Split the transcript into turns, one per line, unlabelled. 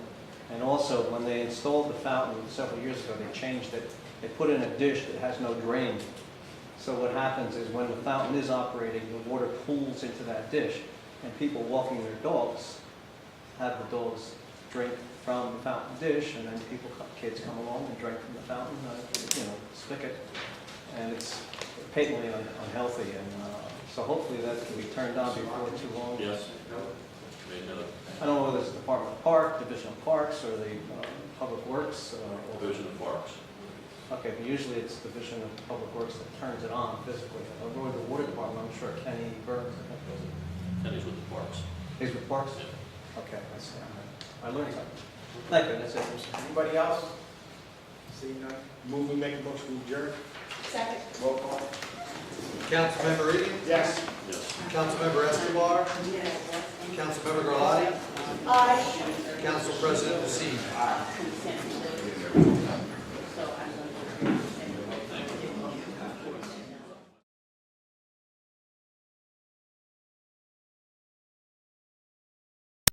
And also, when they installed the fountain several years ago, they changed it. They put in a dish that has no drain. So what happens is when the fountain is operating, the water pools into that dish, and people walking their dogs have the dogs drink from the fountain dish, and then people, kids come along and drink from the fountain, uh, you know, spigot. And it's patently un- unhealthy, and uh, so hopefully that can be turned on before too long.
Yes. Made note.
I don't know whether it's the Department of Park, Division of Parks, or the uh, Public Works. uh, or-
Division of Parks.
Okay, but usually it's Division of Public Works that turns it on physically. I'm going to the Water Department, I'm sure Kenny Burns, I think, does it.
Kenny's with the Parks.
He's with Parks?
Yeah.
Okay, I see. I learned something. Thank you, that's it.
Anybody else? Seeing none, move and make a motion to adjourn.
Second.
Roll call.
Councilmember Egan,
Yes.
Yes.
Councilmember Escobar, Councilmember Garlotti,
Aye.
Council President Racine.
Consent.